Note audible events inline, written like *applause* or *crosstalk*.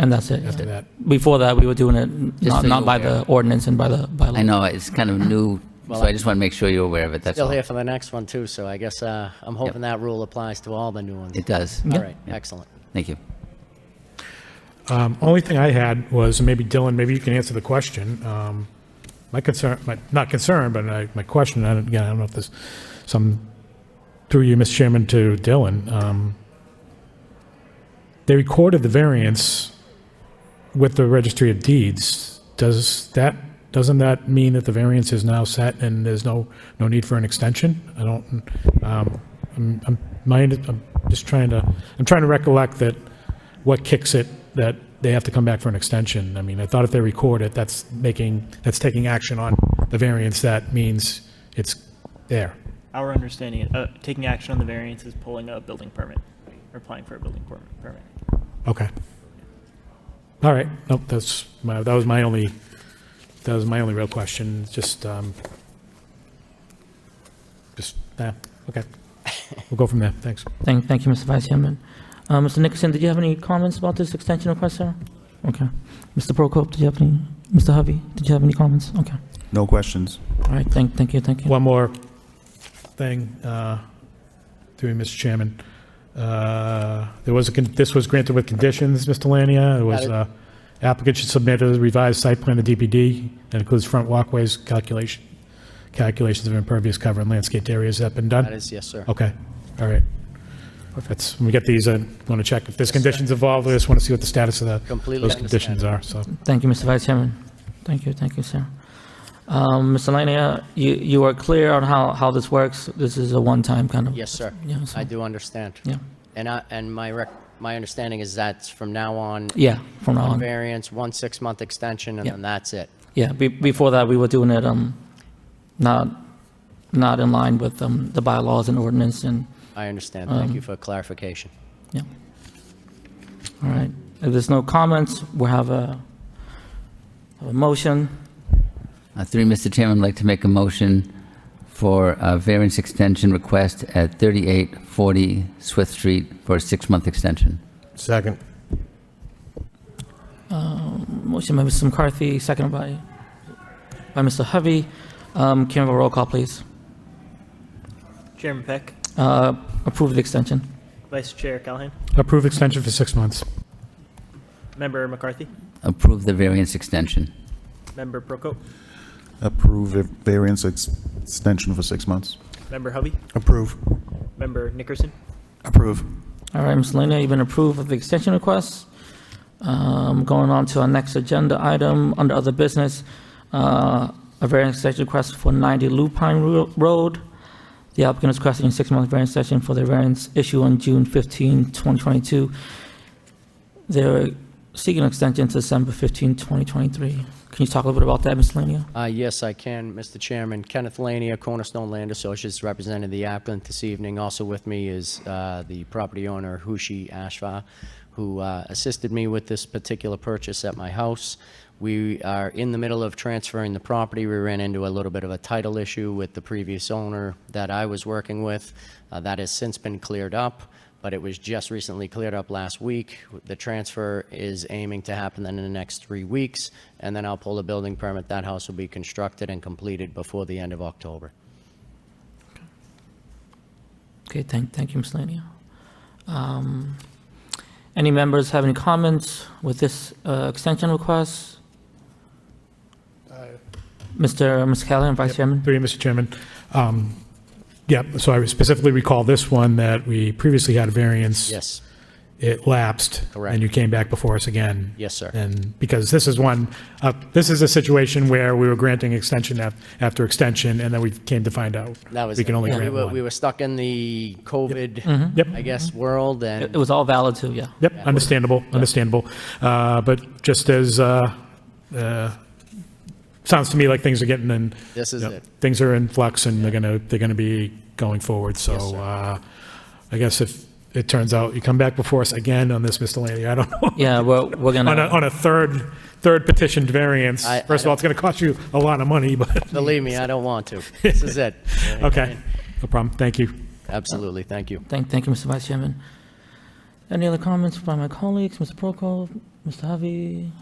And that's it. after that. Before that, we were doing it Just not, so not you're by the ordinance and by the by law. I know, it's kind of new, so I just want to make sure you're aware of it, that's Still all. here It for the next one too, so I guess uh, I'm hoping that rule applies to all the new ones. does. All right, excellent. Thank you. Um, Only thing I had was, and maybe Dylan, maybe you can answer the question. um, My concern, my- not concern, but I- my question, and again, I don't know if this, some, through you, Mr. Chairman, to Dylan. um, They recorded the variance with the Registry of Deeds. Does that, doesn't that mean that the variance is now set and there's no, no need for an extension? I don't, um, I'm, I'm, my- I'm just trying to, I'm trying to recollect that what kicks it that they have to come back for an extension? I mean, I thought if they record it, that's making, that's taking action on the variance. That means it's there. Our understanding, uh, taking action on the variance is pulling a building permit, or applying for a building per- permit. Okay. All right. Nope, that's my, that was my only, that was my only real question. Just, um, just, yeah, okay. We'll go from there. Thanks. Thank, thank you, Mr. Vice Chairman. Uh, Mr. Nickerson, did you have any comments about this extension request, sir? Okay. Mr. Prokop, did you have any? Mr. Hovey, did you have any comments? Okay. No questions. All right. Thank, thank you. Thank you. One more thing, uh, through you, Mr. Chairman. Uh, There was, a con- this was granted with conditions, Mr. Lania. It was Got it. uh, applicant should submit a revised site plan to DPD that includes front walkways, calculation, calculations of impervious cover and landscaped areas. Has that been That done? is, yes, sir. Okay, all right. That's, when we get these, I want to check if there's conditions involved. I just want to see what the status of the, Completely those conditions understand. are, so. Thank you, Mr. Vice Chairman. Thank you, thank you, sir. Um, Mr. Lania, you, you are clear on how, how this works? This is a one-time kind of? Yes, sir. Yeah, so- I do understand. Yeah, And I, and my rec, my understanding is that's from now on, yeah, from now one on. variance, one six-month extension, and Yeah. then that's it. Yeah, be, before that, we were doing it, um, not, not in line with, um, the bylaws and ordinance and, I understand. Um, Thank you for clarification. yeah. All right, if there's no comments, we'll have a, a motion. Uh, Through you, Mr. Chairman, I'd like to make a motion for a variance extension request at 3840 Swift Street for a six-month extension. Second. Motion by Mr. McCarthy, seconded by, by Mr. Hovey. Um, can we have a roll call, please? Chairman Peck, Uh, approve the extension. Vice Chair Callahan, Approve extension for six months. Member McCarthy, Approve the variance extension. Member Prokop, Approve a variance ex- extension for six months. Member Hovey, Approve. Member Nickerson, Approve. All right, Ms. Lena, you've been approved of the extension request. Um, Going on to our next agenda item, under other business, uh, a variance extension request for 90 Lupine Ro- Road. The applicant is requesting a six-month variance extension for their variance issue on June 15, 2022. They're seeking an extension to December 15, 2023. Can you talk a little bit about that, Ms. Lena? Uh, Yes, I can, Mr. Chairman. Kenneth Lania, Cornerstone Land Associates, represented the applicant this evening. Also with me is uh, the property owner, Hushi Ashva, who uh, assisted me with this particular purchase at my house. We are in the middle of transferring the property. We ran into a little bit of a title issue with the previous owner that I was working with. Uh, That has since been cleared up but it was just recently cleared up last week. The transfer is aiming to happen then in the next three weeks, and then I'll pull the building permit. That house will be constructed and completed before the end of October. Okay, thank, thank you, Ms. Lania. Um, Any members have any comments with this uh, extension request? Mr. Muscallon, Vice Chairman? Through you, Mr. Chairman. Um, Yeah, so I specifically recall this one that we previously had a variance. Yes, It lapsed. Correct. And you came back before us again. yes, sir. And because this is one, uh, this is a situation where we were granting extension af- after extension, and then we came to find out. That was. We can it. only Yeah, we grant were- We one. were stuck in the Yep. Mm-hmm. COVID, I guess, world, It and it was all valid too, yeah. Yep, understandable, understandable. Uh, But just as, uh, uh, sounds to me like things are getting in. This is Yep. it. Things are in flux and they're gonna, they're gonna be going forward, so, Yes, sir. uh, I guess if it turns out you come back before us again on this, Mr. Lanning, I don't know. Yeah, we're, we're *laughs* On a, gonna, on a third, third petitioned variance, I- I first of all, don't- it's gonna cost you a lot of money, but, believe me, I don't want *laughs* to. This is it. okay, no problem, thank you. Absolutely, thank you. thank, thank you, Mr. Vice Chairman. Any other comments by my colleagues, Mr. Prokop, Mr. Harvey?